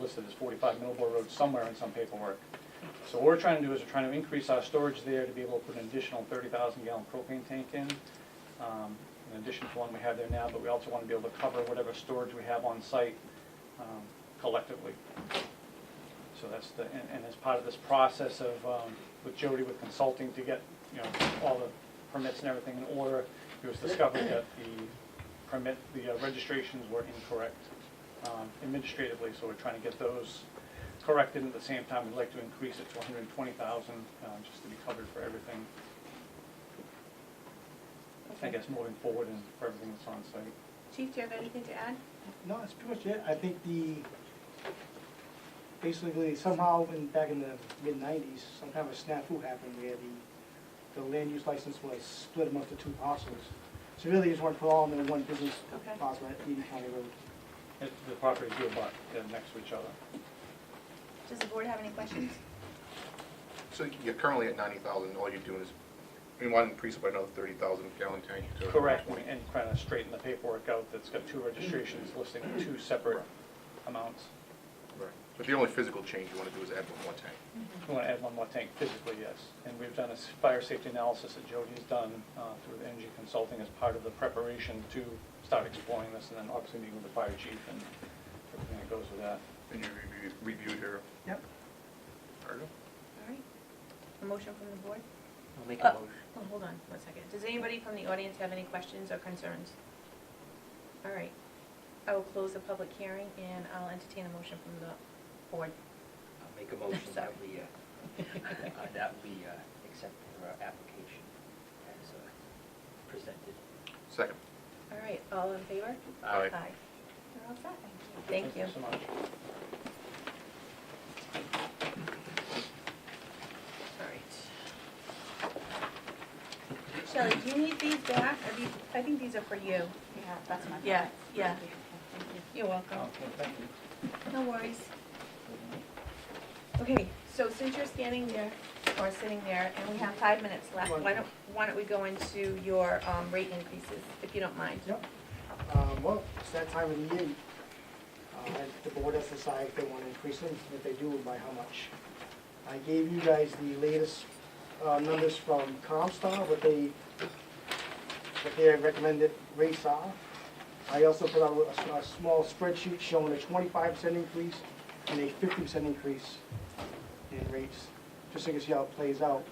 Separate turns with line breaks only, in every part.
listed as forty-five Millboard Road somewhere in some paperwork. So what we're trying to do is we're trying to increase our storage there to be able to put an additional thirty thousand gallon propane tank in, um, in addition to the one we have there now, but we also want to be able to cover whatever storage we have on site um, collectively. So that's the, and, and as part of this process of, um, with Jody with consulting to get, you know, all the permits and everything in order, it was discovered that the permit, the uh, registrations were incorrect um, administratively, so we're trying to get those corrected. At the same time, we'd like to increase it to hundred and twenty thousand, um, just to be covered for everything, I guess, moving forward and for everything that's on site.
Chief, do you have anything to add?
No, that's pretty much it. I think the, basically somehow in, back in the mid-nineties, some kind of a snafu happened where the, the land use license was split amongst the two parcels. So really, it's one for all, and then one business
Okay.
parcel at Eden County Road.
It- The properties do abut, they're next to each other.
Does the board have any questions?
So you're currently at ninety thousand, all you're doing is, I mean, why not increase it by another thirty thousand gallon tank? to
Correct,
120?
and kind of straighten the paperwork out that's got two registrations listing two separate amounts.
Right. But the only physical change you wanna do is add one more tank.
We want to add one more tank physically, yes. And we've done a s- fire safety analysis that Jody's done uh, through the Energy Consulting as part of the preparation to start exploring this, and then obviously meeting with the fire chief and everything that goes with that.
And you review- reviewed her
Yep.
article?
All right. A motion from the board?
I'll make
Uh,
a motion.
Oh, hold on one second. Does anybody from the audience have any questions or concerns? All right. I will close the public hearing and I'll entertain a motion from the board.
I'll make a motion
Sorry.
that we, uh, uh, that we uh, accept her application as uh, presented.
Second.
All right, all in favor?
Aye.
You're all set. Thank you.
so much.
All right. Shelley, do you need these back? Are these, I think these are for you.
Yeah, that's my.
Yeah,
favorite.
yeah.
Thank you. Thank you.
You're welcome.
Okay, thank you.
No worries. Okay, so since you're standing there, or sitting there, and we have five minutes left, why don't, why don't we go into your um, rate increases, if you don't mind?
Yep. Um, well, it's that time of the year. Uh, the board has to decide if they want to increase them, if they do, by how much. I gave you guys the latest, uh, numbers from Comstar, what they, what their recommended rates are. I also put out a, s- a small spreadsheet showing a twenty-five percent increase and a fifty percent increase in rates, just so you can see how it plays out.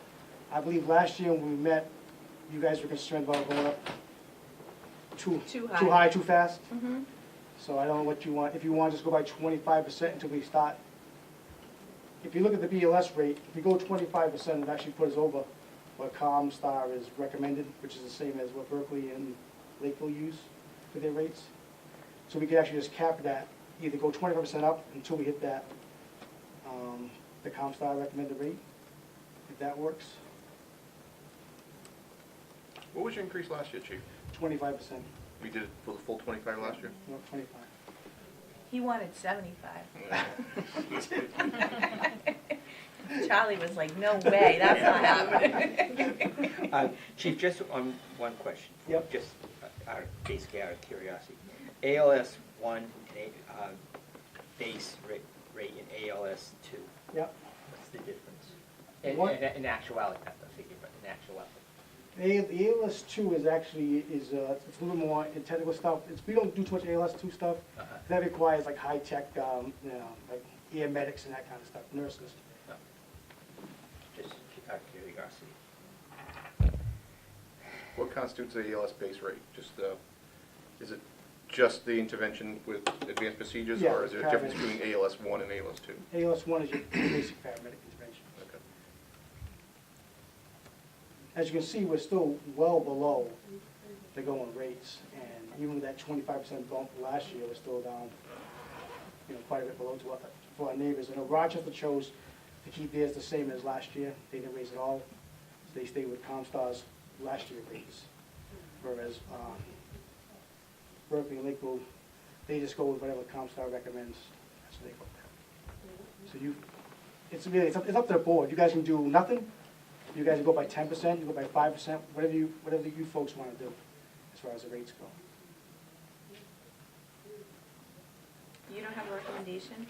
I believe last year when we met, you guys were concerned about going up too,
Too
too
high.
high, too fast.
Mm-hmm.
So I don't know what you want, if you want, just go by twenty-five percent until we start. If you look at the BLS rate, if you go twenty-five percent, it actually puts us over what Comstar is recommended, which is the same as what Berkeley and Lakeville use for their rates. So we could actually just cap that, either go twenty-five percent up until we hit that, um, the Comstar recommended rate, if that works,
What was your increase last year, chief?
twenty-five percent,
We did it for the full twenty-five last year?
not twenty-five.
He wanted seventy-five.
Yeah.
Charlie was like, no way, that's not happening.
Uh, Chief, just on one question.
Yep.
Just uh, out of, basically out of curiosity. ALS one, and A- uh, base ra- rate and ALS two,
Yep.
what's the difference? In,
One-
in- in actuality, not the figure, but in actuality.
A- The ALS two is actually, is, uh, it's a little more in technical stuff, it's, we don't do too much ALS two stuff.
Uh-huh.
That requires like high-tech, um, you know, like air medics and that kind of stuff, nurses.
No. Oh. Just cu- out of curiosity.
What constitutes a ELS base rate? Just, uh, is it just the intervention with advanced procedures?
Yeah,
Or is there a difference
paramedics.
between ALS one and ALS two?
ALS one is your basic paramedic intervention.
Okay.
As you can see, we're still well below the going rates, and even with that twenty-five percent bump last year, we're still down, you know, quite a bit below to our, for our neighbors. I know Rochester chose to keep theirs the same as last year, they didn't raise it all, so they stayed with Comstar's last year rates. Whereas, um, Berkeley and Lakeville, they just go with whatever Comstar recommends, that's what they go with. So you, it's really, it's up, it's up to the board, you guys can do nothing, you guys go by ten percent, you go by five percent, whatever you, whatever you folks wanna do, as far as the rates go.
You don't have a recommendation?